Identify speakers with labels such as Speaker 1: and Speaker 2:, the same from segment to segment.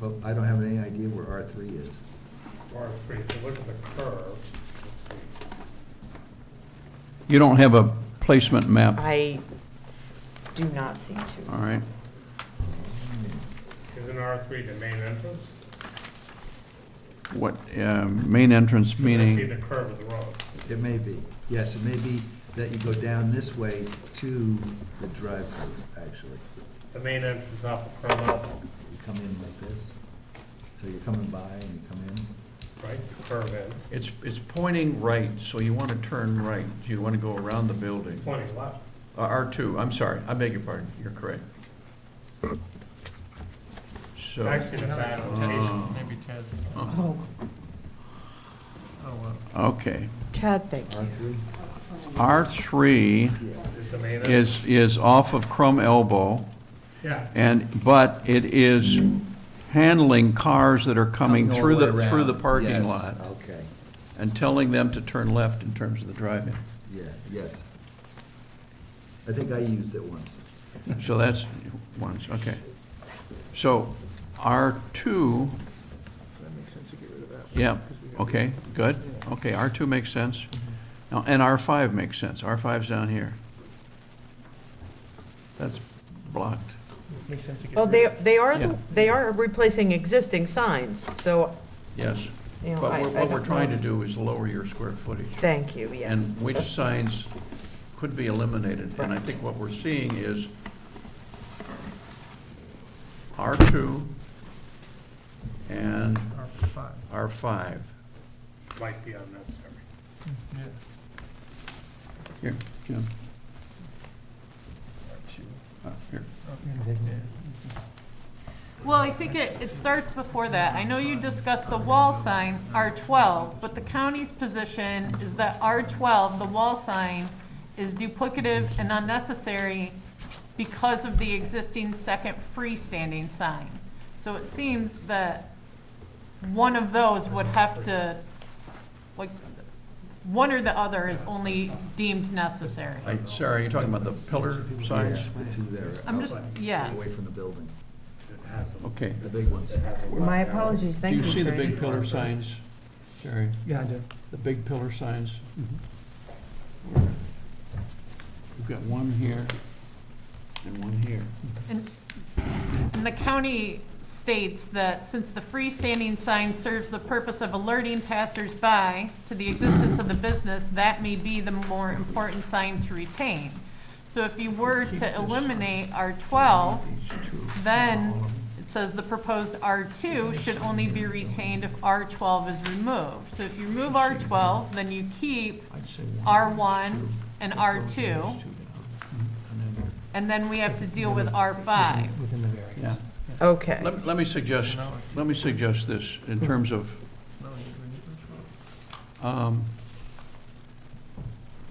Speaker 1: Well, I don't have any idea where R three is.
Speaker 2: R three, if you look at the curve, let's see.
Speaker 3: You don't have a placement map,
Speaker 4: I do not seem
Speaker 3: all
Speaker 4: to.
Speaker 3: right?
Speaker 2: Isn't R three the main entrance?
Speaker 3: What, uh, main entrance
Speaker 2: 'Cause I see the
Speaker 3: meaning,
Speaker 2: curve of the road.
Speaker 1: It may be, yes, it may be that you go down this way to the drive-through, actually.
Speaker 2: The main entrance off of Carmel,
Speaker 1: You come in like this, so you're coming by and you come in.
Speaker 2: right, the curve in,
Speaker 3: it's, it's pointing right, so you want to turn right. You want to go around the building.
Speaker 2: pointing left.
Speaker 3: Uh, R2, I'm sorry, I beg your pardon, you're correct.
Speaker 2: It's
Speaker 3: So,
Speaker 2: actually the bad location.
Speaker 3: uh,
Speaker 5: Maybe Ted,
Speaker 1: uh-huh.
Speaker 4: Oh,
Speaker 5: oh, well,
Speaker 3: okay.
Speaker 4: Ted, thank you.
Speaker 1: R three?
Speaker 3: R3
Speaker 2: Is the main entrance?
Speaker 3: is, is off of Crum Elbow,
Speaker 2: Yeah,
Speaker 3: and, but it is handling cars that are coming
Speaker 1: Come
Speaker 3: through
Speaker 1: all
Speaker 3: the,
Speaker 1: way
Speaker 3: through the
Speaker 1: around.
Speaker 3: parking
Speaker 1: Yes,
Speaker 3: lot
Speaker 1: Okay,
Speaker 3: and telling them to turn left in terms of the drive-in.
Speaker 1: yeah, yes. I think I used it once.
Speaker 3: So that's ones, okay. So R2,
Speaker 6: That makes sense to get rid of that.
Speaker 3: yeah, okay, good, okay, R2 makes sense. Now, And R5 makes sense, R5's down here. That's blocked.
Speaker 5: makes sense to get
Speaker 4: Well, they,
Speaker 5: rid of
Speaker 4: they are,
Speaker 3: Yeah.
Speaker 4: the- they are replacing existing signs, so,
Speaker 3: Yes.
Speaker 4: you know,
Speaker 3: But
Speaker 4: I.
Speaker 3: we're-
Speaker 4: I
Speaker 3: what we're
Speaker 4: don't
Speaker 3: trying
Speaker 4: know.
Speaker 3: to do is lower your square footage.
Speaker 4: Thank you, yes.
Speaker 3: and which signs could be eliminated. And I think what we're seeing is R2 and
Speaker 5: our five.
Speaker 3: R5.
Speaker 2: might be unnecessary.
Speaker 5: Yeah.
Speaker 3: Here, Jim. Uh, Here.
Speaker 7: Well, I think it, it starts before that. I know you discussed the wall sign, R twelve, but the county's position is that R twelve, the wall sign, is duplicative and unnecessary because of the existing second freestanding sign. So it seems that one of those would have to, like, one or the other is only deemed necessary.
Speaker 3: I- Sarah, you're talking about the pillar signs?
Speaker 1: Yeah, The two there.
Speaker 7: I'm just-
Speaker 1: outside,
Speaker 7: yes.
Speaker 1: Away from the building,
Speaker 2: It has a-
Speaker 3: Okay.
Speaker 1: the big ones.
Speaker 2: it has a lot
Speaker 4: My
Speaker 2: of arrow.
Speaker 4: apologies,
Speaker 3: Do
Speaker 4: thank you,
Speaker 3: you
Speaker 4: sir.
Speaker 3: see the big pillar signs, Sarah?
Speaker 5: Yeah, I do.
Speaker 3: The big pillar signs?
Speaker 4: Mm-hmm.
Speaker 3: We've got one here and one here.
Speaker 7: And and the county states that since the freestanding sign serves the purpose of alerting passersby to the existence of the business, that may be the more important sign to retain. So if you were to eliminate R twelve,
Speaker 3: These two.
Speaker 7: then it says the proposed R2 should only be retained if R12 is removed. So if you remove R12, then you keep,
Speaker 3: I'd say one,
Speaker 7: R1
Speaker 3: two.
Speaker 7: and
Speaker 3: Those are these
Speaker 7: R2.
Speaker 3: two down. And then-
Speaker 7: and then we have to deal with R5.
Speaker 5: Within the variance.
Speaker 3: Yeah.
Speaker 4: Okay,
Speaker 3: Let, let me suggest, let me suggest this in terms of,
Speaker 5: No, you agree with that?
Speaker 3: um,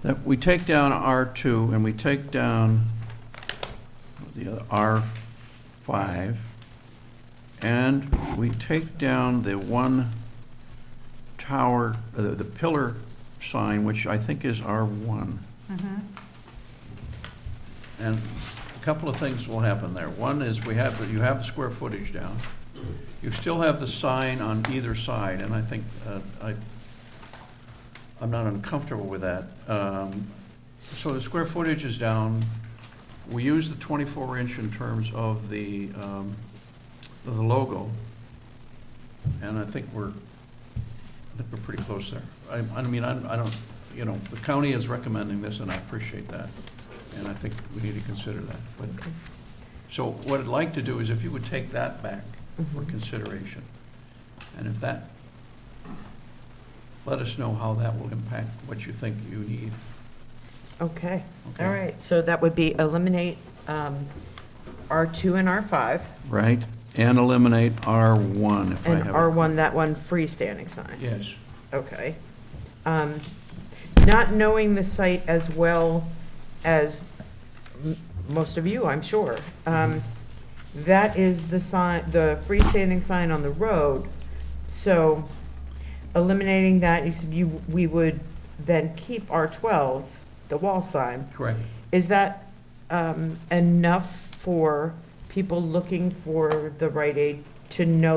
Speaker 3: that we take down R2 and we take down the other, R5, and we take down the one tower, uh, the, the pillar sign, which I think is R1.
Speaker 7: Mhm.
Speaker 3: And a couple of things will happen there. One is we have, you have the square footage down. You still have the sign on either side, and I think, uh, I, I'm not uncomfortable with that. Um, So the square footage is down. We use the 24 inch in terms of the, um, of the logo. And I think we're, I think we're pretty close there. I, I mean, I'm- I don't, you know, the county is recommending this, and I appreciate that. And I think we need to consider that. But, so what I'd like to do is if you would take that back for consideration. And if that, let us know how that will impact what you think you need.
Speaker 4: okay,
Speaker 3: Okay.
Speaker 4: all right. So that would be eliminate um, R2 and R5,
Speaker 3: Right, and eliminate R1 if I
Speaker 4: and
Speaker 3: have. it.
Speaker 4: R1, that one freestanding sign.
Speaker 3: Yes,
Speaker 4: Okay. Um, Not knowing the site as well as m- most of you, I'm sure, um, that is the sign, the freestanding sign on the road. So eliminating that, you said you, we would then keep R12, the wall sign.
Speaker 3: correct.
Speaker 4: Is that um, enough for people looking for the Rite Aid to know